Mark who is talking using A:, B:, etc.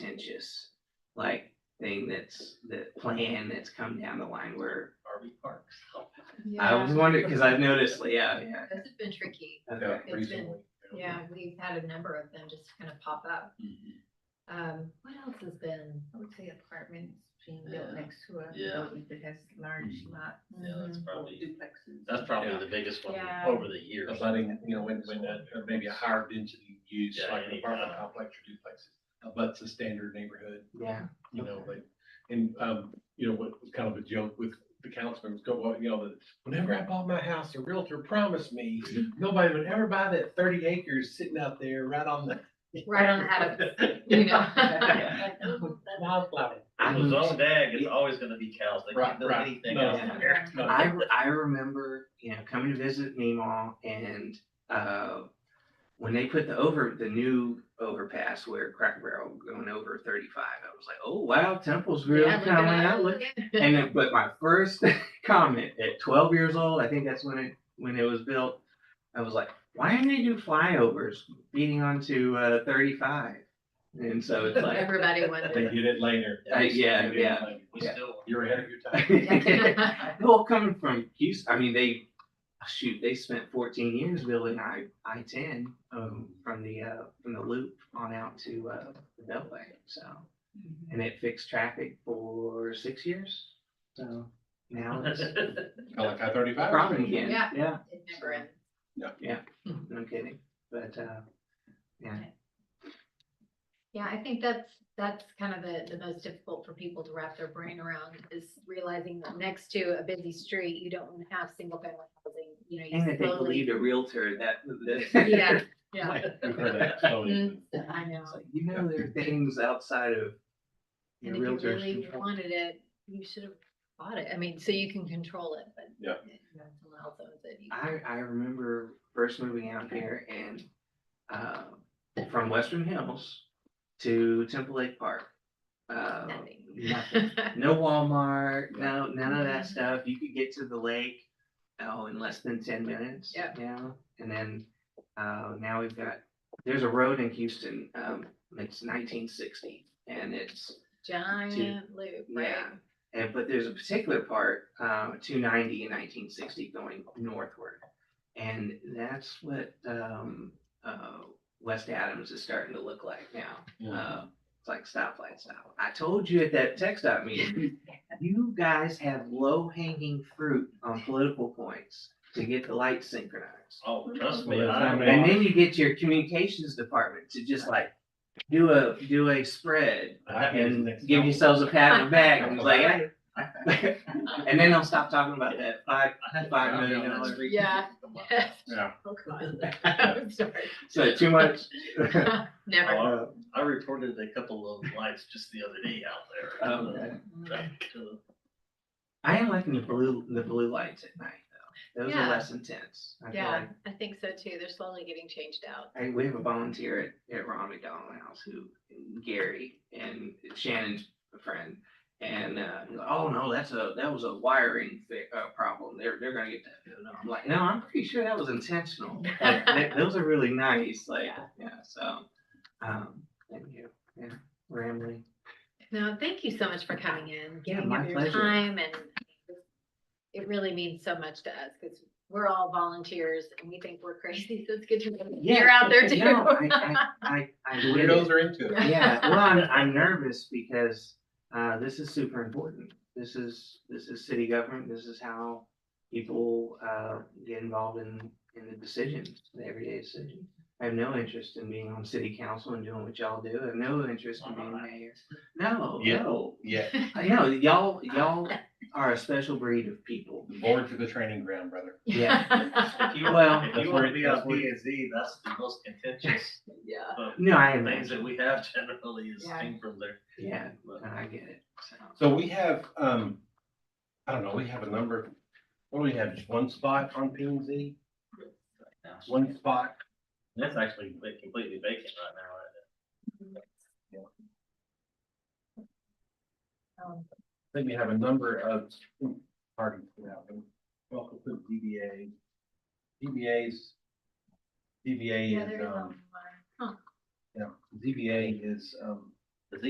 A: contentious, like, thing that's, the plan that's come down the line where RV parks. I was wondering, because I've noticed, yeah, yeah.
B: This has been tricky.
A: Okay.
B: It's been-
C: reasonably.
B: Yeah, we've had a number of them just kind of pop up.
C: Mhm.
B: Um, what else has been?
D: I would say apartments being built
E: Yeah.
D: next to a
E: Yeah.
D: building that has large
C: Mhm.
D: lot Mm-hmm.
E: Yeah, that's probably,
D: duplexes.
E: that's probably
C: Yeah.
E: the biggest one
B: Yeah.
E: over the years.
C: Of letting, you know, when, when that, or maybe a higher density use,
E: Yeah,
C: like
E: any
C: an apartment
E: kind.
C: complex or duplexes, uh, abuts the standard neighborhood,
A: Yeah.
C: you know, like, and, um, you know, what was kind of a joke with the councilman was go, well, you know, that whenever I bought my house, a realtor promised me, nobody would ever buy that thirty acres sitting out there right on the.
B: Right on the head You know?
A: Yeah.
C: Wildflower.
A: I
E: It was
A: moved-
E: on DAG, it's always gonna be cows, they
C: Right,
E: can't build
C: right.
E: anything
C: No.
E: else.
A: Yeah.
B: Yeah.
C: No,
A: I, re- I remember, you know, coming to visit Meemaw and, uh, when they put the over, the new overpass where Cracker Barrel going over thirty-five, I was like, oh, wow, Temple's really
B: Yeah, look
A: kind of
B: at
A: out,
B: us.
A: look. And then, but my first comment at twelve years old, I think that's when it, when it was built, I was like, why didn't they do flyovers beating onto, uh, thirty-five? And so it's like,
B: Everybody
C: They
B: wondered.
C: did it later.
A: Uh, yeah,
C: They did it
A: yeah.
C: later.
E: We
A: Yeah.
E: still,
C: You're ahead of your time.
A: Well, coming from Houston, I mean, they, shoot, they spent fourteen years building I, I ten, um, from the, uh, from the loop on out to, uh, the Beltway, so. And it fixed traffic for six years, so now it's
E: it
C: I like I thirty-five.
A: a problem again,
B: Yeah.
A: yeah,
B: It never ends.
A: no kidding, but, uh,
B: Yeah, I think that's, that's kind of the, the most difficult for people to wrap their brain around is realizing that next to a busy street, you don't wanna have single family housing, you know.
A: and
B: you
A: if they
B: slowly-
A: believed a realtor that, that.
B: Yeah, yeah.
A: Like,
B: Mm,
C: We've heard that
A: Mm-hmm.
C: slowly.
B: I know.
A: it's like, You know, there are things outside of your
B: And if you
A: realtor's
B: really
A: control.
B: wanted it, you should have bought it. I mean, so you can control it, but.
C: Yeah.
B: it- you know, it's a lot of those that you-
A: I, I remember first moving out here and, uh, from Western Hills to Temple Lake Park. Uh,
B: Nothing.
A: nothing. no Walmart, no, none of
B: Mhm.
A: that stuff. You could get to the lake, oh, in less than ten minutes. Yeah.
B: Yep.
A: Now, and then, uh, now we've got, there's a road in Houston, um, it's nineteen sixty and it's
B: Giant loop,
A: yeah,
B: right?
A: and but there's a particular part, uh, two ninety and nineteen sixty going northward. And that's what, um, uh, West Adams is starting to look like now. Uh, it's like stoplight style. I told you at that tech dot meeting, you guys have low hanging fruit on political points to get the lights synchronized.
E: oh, trust me,
C: Well, that's not
E: I,
A: And then you get your communications department to just like do a, do a spread
C: That means
A: and
C: next
A: give
C: time.
A: yourselves a pat on the back and it's like, "Hey, and then they'll stop talking about that five, five
E: I'll be
A: million
E: on that
A: dollars.
E: street.
B: Yeah.
E: Come on.
C: Yeah.
B: Oh, God. I'm sorry.
A: So too much.
B: Never.
A: Uh,
E: I reported a couple of lights just the other day out there.
C: Oh,
E: Uh,
A: um,
B: Mm.
D: Mm-hmm.
E: Back to-
A: I am liking the blue, the blue lights at night though. Those
B: Yeah.
A: are less intense. I feel
B: Yeah,
A: like-
B: I think so too. They're slowly getting changed out.
A: I, we have a volunteer at, at Ron McDonald House who, Gary and Shannon's a friend. And, uh, he's like, oh no, that's a, that was a wiring fi- uh, problem. They're, they're gonna get that. fixed." And I'm like, no, I'm pretty sure that was intentional. Like, th- Those are really nice, like, yeah, so, um, thank you, yeah, rambling.
B: No, thank you so much for coming in, giving
A: my
B: up your
A: pleasure.
B: time and it really means so much to us because we're all volunteers and we think we're crazy, so it's good to know
A: Yeah,
B: you're out there too.
A: No, I, I, I, I get
C: Weirdos
A: it.
C: are into it.
A: Yeah, well, I'm, I'm nervous because, uh, this is super important. This is, this is city government. This is how people, uh, get involved in, in the decisions, the everyday decisions. I have no interest in being on city council and doing what y'all do. I have no interest in being mayor. No,
C: Yeah.
A: no.
C: Yeah,
A: I know, y'all, y'all are a special breed of people.
C: the boards are the training ground, brother.
B: Yeah.
E: If you
A: Well-
E: want, if
C: That's
E: you
C: where
E: wanna
C: it-
E: be
C: that's
E: on
C: where it-
E: P and Z, that's the most contentious
B: Yeah.
A: No, I am,
E: things that we have generally is
B: Yeah.
E: thing from there.
A: yeah,
E: But-
A: I get it. So,
C: So we have, um, I don't know, we have a number, of- what do we have, just one spot on P and Z? One spot?
E: That's actually like, completely vacant right now, right?
B: Um,
C: I think we have a number of parties now. Welcome to DBA. DBA's.
B: Yeah,
C: DBA
B: there
C: is,
B: is
C: um,
B: online. Huh.
C: yeah, DBA is, um,